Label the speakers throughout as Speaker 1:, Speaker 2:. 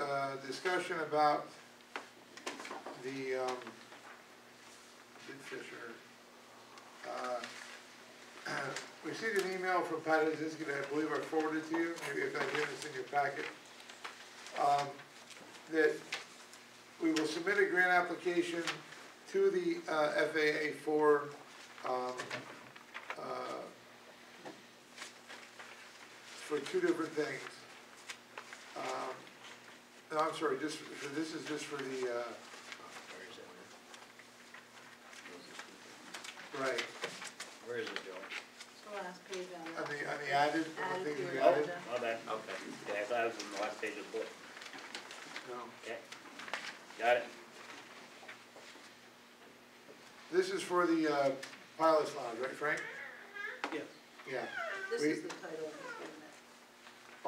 Speaker 1: uh, discussion about the, um, Bid Fisher. Uh, Received an email from Patty Zinsky that I believe I forwarded to you, maybe if I did, it's in your packet. Um, that we will submit a grant application to the uh, FAA for, um, uh, for two different things. Um, No, I'm sorry, just, for- this is just for the, uh, Right,
Speaker 2: Where is it, Joe?
Speaker 3: It's the last page on
Speaker 1: on
Speaker 3: that.
Speaker 1: the, on the added, on the
Speaker 3: Added
Speaker 1: things
Speaker 3: to
Speaker 1: we
Speaker 3: your
Speaker 1: added,
Speaker 3: agenda.
Speaker 2: My bad, okay. Yeah, I thought it was in the last page of the book.
Speaker 1: no.
Speaker 2: Okay. Got it?
Speaker 1: This is for the, uh, pilot's lounge, right Frank?
Speaker 2: Yes.
Speaker 1: Yeah,
Speaker 3: This
Speaker 1: we-
Speaker 3: is the title of the agreement.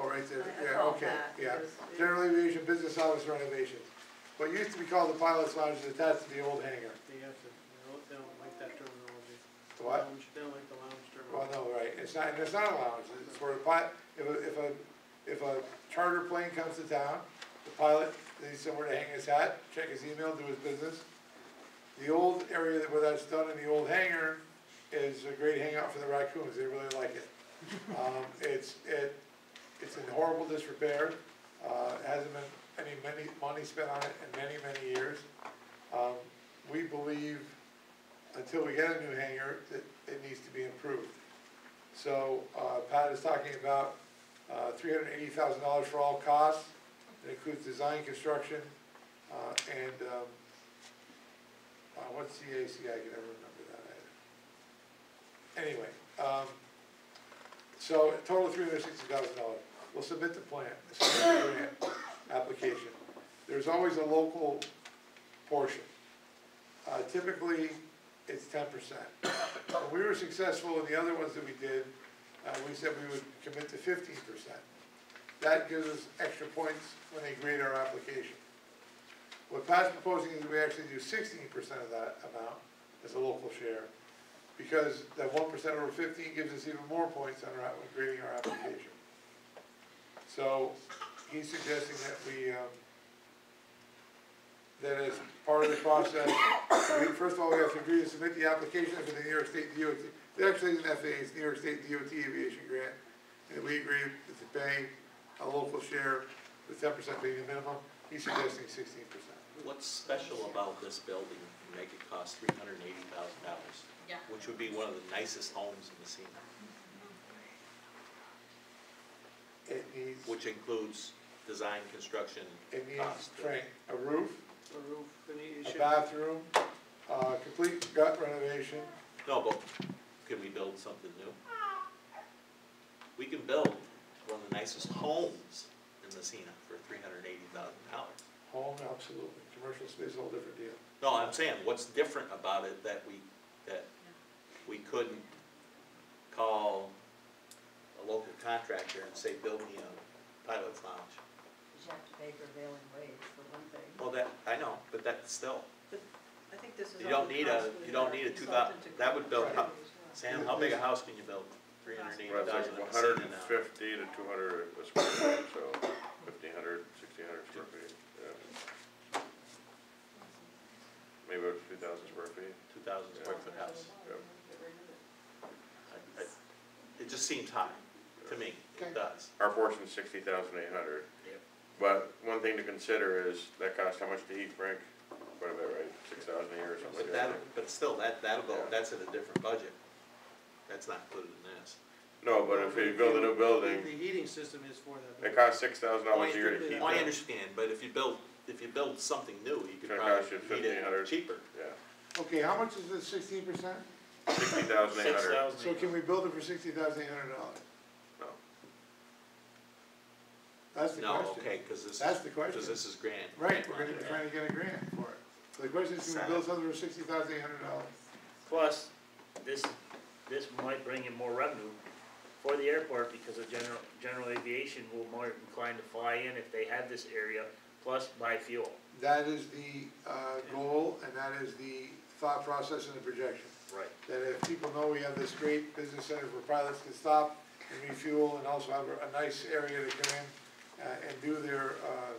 Speaker 1: oh, right there,
Speaker 3: I- I
Speaker 1: yeah,
Speaker 3: called
Speaker 1: okay,
Speaker 3: that
Speaker 1: yeah.
Speaker 3: because it-
Speaker 1: General aviation business office renovations. What used to be called the pilot's lounge is attached to the old hangar.
Speaker 4: They have to, they don't, they don't like that terminology.
Speaker 5: Oh.
Speaker 1: What?
Speaker 4: Lounge, They don't like the lounge
Speaker 1: Well,
Speaker 4: terminology.
Speaker 1: no, right, it's not, it's not a lounge, it's for a pilot, if a, if a, if a charter plane comes to town, the pilot needs somewhere to hang his hat, check his email, do his business. The old area that where that's done in the old hangar is a great hangout for the raccoons, they really like it. Um, it's, it, it's in horrible disrepair, uh, hasn't been any many, money spent on it in many, many years. Um, we believe until we get a new hangar, that it needs to be improved. So, uh, Pat is talking about, uh, three hundred eighty thousand dollars for all costs. It includes design, construction, uh, and, um, uh, what's CAC, I can never remember that either. Anyway, um, so total three hundred sixty thousand dollars. We'll submit the plan, submit the grant application. There's always a local portion. Uh, typically, it's ten percent. We were successful in the other ones that we did, uh, we said we would commit to fifteen percent. That gives us extra points when they grade our application. What Pat's proposing is we actually do sixteen percent of that amount as a local share, because that one percent over fifteen gives us even more points on our, when grading our application. So, he's suggesting that we, um, that as part of the process, we- first of all, we have to agree to submit the application for the New York State DOT. It actually isn't FAA, it's New York State DOT Aviation Grant, and we agree to pay a local share, with ten percent being the minimum, he's suggesting sixteen percent.
Speaker 5: What's special about this building to make it cost three hundred and eighty thousand dollars?
Speaker 3: Yeah.
Speaker 5: Which would be one of the nicest homes in Messina,
Speaker 1: It needs,
Speaker 5: which includes design, construction,
Speaker 1: it needs,
Speaker 5: cost.
Speaker 1: Frank, a roof,
Speaker 4: The roof, and it
Speaker 1: a
Speaker 4: should,
Speaker 1: bathroom, uh, complete gut renovation,
Speaker 5: No, but can we build something new? We can build one of the nicest homes in Messina for three hundred and eighty thousand dollars.
Speaker 1: home, absolutely, commercial space, a whole different deal.
Speaker 5: No, I'm saying, what's different about it that we, that we couldn't call a local contractor and say, build me a pilot's lounge?
Speaker 3: You have to pay prevailing wage for one thing.
Speaker 5: Well, that, I know, but that's still,
Speaker 3: I think this is.
Speaker 5: You don't need a- you don't need a two thou- that would build up. Sam, how big a house can you build? Three hundred and
Speaker 6: Well,
Speaker 5: eighty
Speaker 6: it's
Speaker 5: thousand
Speaker 6: like
Speaker 5: in
Speaker 6: hundred
Speaker 5: Messina
Speaker 6: and
Speaker 5: now.
Speaker 6: fifty to two hundred a square foot, so fifteen hundred, sixteen hundred square feet, yeah. Maybe up to two thousand square feet.
Speaker 5: Two thousand square foot house. I- I- It just seems high, to me,
Speaker 1: Okay.
Speaker 5: it does.
Speaker 6: Our portion's sixty thousand eight hundred.
Speaker 5: Yep.
Speaker 6: But one thing to consider is that costs how much to heat, Frank? What about, right, six thousand a year or something
Speaker 5: But
Speaker 6: like
Speaker 5: that,
Speaker 6: that?
Speaker 5: but still, that, that'll go,
Speaker 6: Yeah.
Speaker 5: that's in a different budget. That's not included in this.
Speaker 6: No, but if you build a new building,
Speaker 4: the heating system is for that.
Speaker 6: it costs six thousand dollars a year to
Speaker 4: Well,
Speaker 6: heat
Speaker 5: I
Speaker 6: that,
Speaker 5: understand, but if you build, if you build something new, you could
Speaker 6: Gonna cost you
Speaker 5: probably heat it
Speaker 6: $1,500.
Speaker 5: cheaper.
Speaker 6: yeah.
Speaker 1: Okay, how much is the sixteen percent?
Speaker 6: Sixty thousand eight
Speaker 2: Six
Speaker 6: hundred,
Speaker 2: thousand.
Speaker 1: So can we build it for sixty thousand eight hundred dollars?
Speaker 6: no,
Speaker 1: That's the question.
Speaker 5: No, okay, cause this,
Speaker 1: That's the question.
Speaker 5: cause this is grant.
Speaker 1: Right, we're gonna, trying to get a grant for it. So the question is, can we build something for sixty thousand eight hundred dollars?
Speaker 2: Plus, this, this might bring in more revenue for the airport because the general, general aviation will more inclined to fly in if they have this area, plus buy fuel.
Speaker 1: That is the, uh, goal, and that is the thought process and the projection.
Speaker 2: Right.
Speaker 1: That if people know we have this great business center where pilots can stop and refuel, and also have a nice area to come in, uh, and do their, uh,